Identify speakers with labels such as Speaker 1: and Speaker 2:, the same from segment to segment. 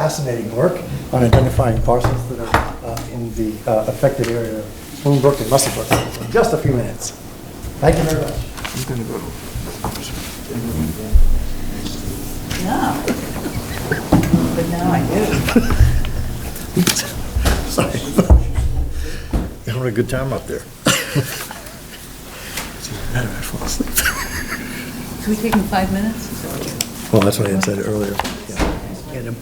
Speaker 1: fascinating work on identifying parcels that are uh, in the uh, affected area of Spoon Brook and Muscle Brook in just a few minutes. Thank you very much.
Speaker 2: No. But now I do.
Speaker 3: Sorry. Having a good time up there. It's even better, I fall asleep.
Speaker 2: Can we take him five minutes?
Speaker 3: Well, that's what I had said earlier. Yeah.
Speaker 1: Get him.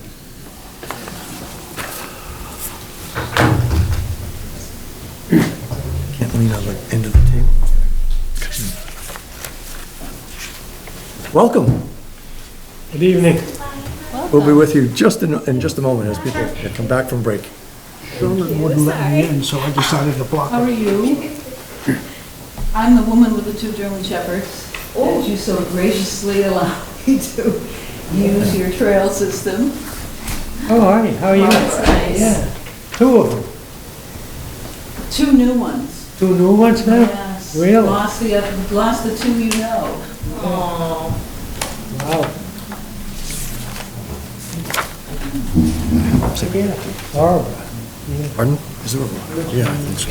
Speaker 3: Can't lean on the end of the table. Welcome.
Speaker 4: Good evening.
Speaker 3: We'll be with you just in, in just a moment as people come back from break.
Speaker 5: Sheldon wouldn't let me in, so I decided to block
Speaker 2: How
Speaker 5: it.
Speaker 2: are you? I'm the woman with the two German shepherds
Speaker 4: Oh.
Speaker 2: that you so graciously allow me to use your trail system.
Speaker 4: How are you? Oh, How are you?
Speaker 2: Well, it's nice.
Speaker 4: Yeah, two of them.
Speaker 2: Two new ones.
Speaker 4: Two new ones now?
Speaker 2: Yes.
Speaker 4: Really? Wow.
Speaker 2: Lost the, oth- lost the two you know.
Speaker 4: Yeah, Horrible.
Speaker 3: Pardon? Is there a, yeah, I think so.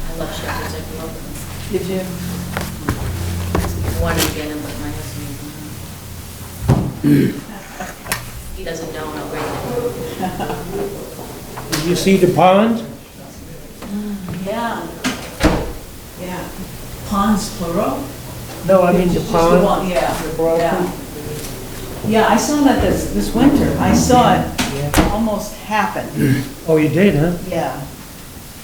Speaker 6: I love shepherds, I grew up with
Speaker 2: Did you?
Speaker 6: them. Wanted to get them, but my husband didn't. He doesn't know how great they are.
Speaker 4: Did you see the pond?
Speaker 2: Yeah. Yeah. Pons plural?
Speaker 4: No, I mean the
Speaker 2: Just
Speaker 4: pond.
Speaker 2: one, Yeah.
Speaker 4: The broccoli?
Speaker 2: yeah. Yeah, I saw that this, this winter. I saw it almost happen,
Speaker 4: Oh, you did, huh?
Speaker 2: yeah.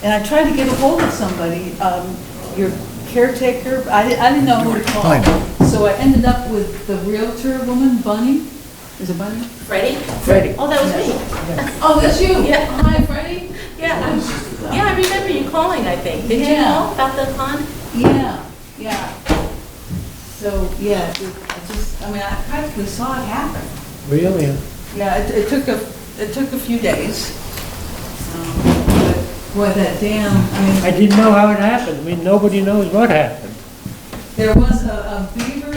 Speaker 2: And I tried to get a hold of somebody, um, your caretaker, I didn't, I didn't know who to
Speaker 3: Fine.
Speaker 2: call. So I ended up with the Realtor woman, Bunny, is it Bunny?
Speaker 6: Freddie?
Speaker 2: Freddie.
Speaker 6: Oh, that was me.
Speaker 2: Oh, that's you?
Speaker 6: Yeah.
Speaker 2: Hi, Freddie?
Speaker 6: Yeah, I yeah, I remember you calling, I think. Did you
Speaker 2: Yeah.
Speaker 6: know about the pond?
Speaker 2: Yeah, yeah. So, yeah, it- I just, I mean, I practically saw it happen.
Speaker 4: Really? huh?
Speaker 2: Yeah, it, it took a, it took a few days. Um, but Boy, that dam, I
Speaker 4: I
Speaker 2: mean,
Speaker 4: didn't know how it happened. I mean, nobody knows what happened.
Speaker 2: there was a, a beaver,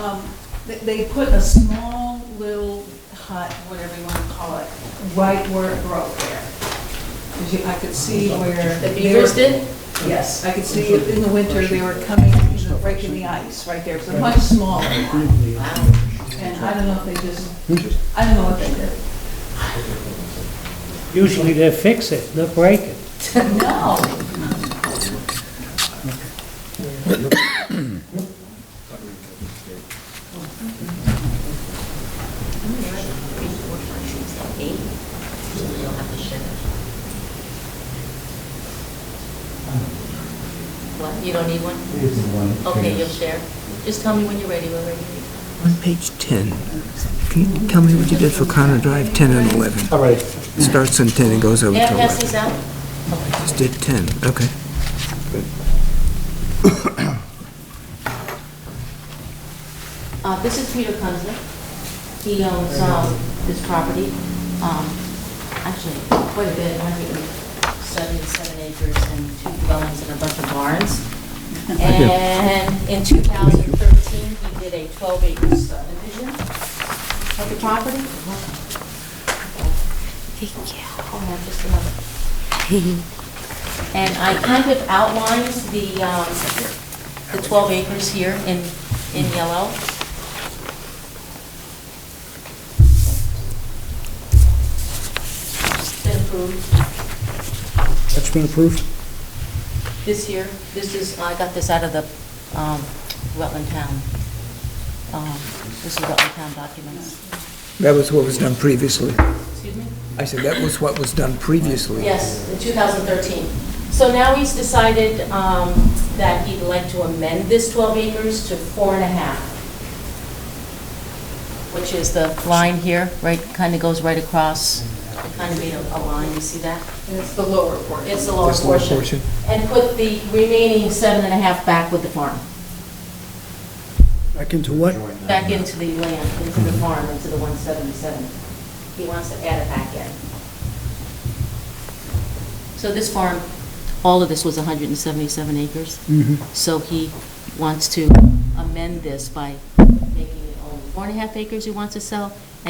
Speaker 2: um, they, they put a small little hut, whatever you want to call it, right where it broke there. 'Cause you- I could see where.
Speaker 6: The beavers
Speaker 2: they were-
Speaker 6: did?
Speaker 2: Yes, I could see it in the winter, they were coming, you know, breaking the ice right there, so much smaller. And I don't know if they just, I don't know what they did.
Speaker 4: Usually they fix it, not break it.
Speaker 2: No.
Speaker 6: Three, four, five, six, seven, eight. So you'll have to ship it. What, you don't need one? Okay, you'll share. Just tell me when you're ready, we're ready.
Speaker 7: On page 10, can you tell me what you did for Connor Drive, 10 and 11?
Speaker 1: All right.
Speaker 7: It starts on 10 and goes over
Speaker 6: May I
Speaker 7: to
Speaker 6: pass
Speaker 7: 11.
Speaker 6: these out?
Speaker 7: Just did 10, okay.
Speaker 6: Uh, this is Peter Kunzler. He owns, um, this property, um, actually, quite a bit, hundred and seventy-seven acres and two dwellings and a bunch of barns. And in two thousand thirteen, he did a twelve acre subdivision of the property. Yeah, I'll have just another. And I kind of outlined the, um, the 12 acres here in, in yellow. It's been approved
Speaker 1: That's been approved?
Speaker 6: this year. This is, I got this out of the um, Rutland Town. um, This is Rutland Town documents.
Speaker 7: That was what was done previously.
Speaker 6: Excuse me?
Speaker 7: I said that was what was done previously.
Speaker 6: Yes, in 2013. So now he's decided um, that he'd like to amend this 12 acres to four and a half, which is the line here, right, kind of goes right across, It kind of made a a line, you see that?
Speaker 2: And it's the lower portion.
Speaker 6: It's the lower
Speaker 7: This lower
Speaker 6: portion.
Speaker 7: portion.
Speaker 6: And put the remaining seven and a half back with the farm,
Speaker 5: Back into what?
Speaker 6: back into the land, into the farm, into the 177. He wants to add it back in. So this farm, all of this was 177 acres? So he wants to amend this by making it only four and a half acres he wants to sell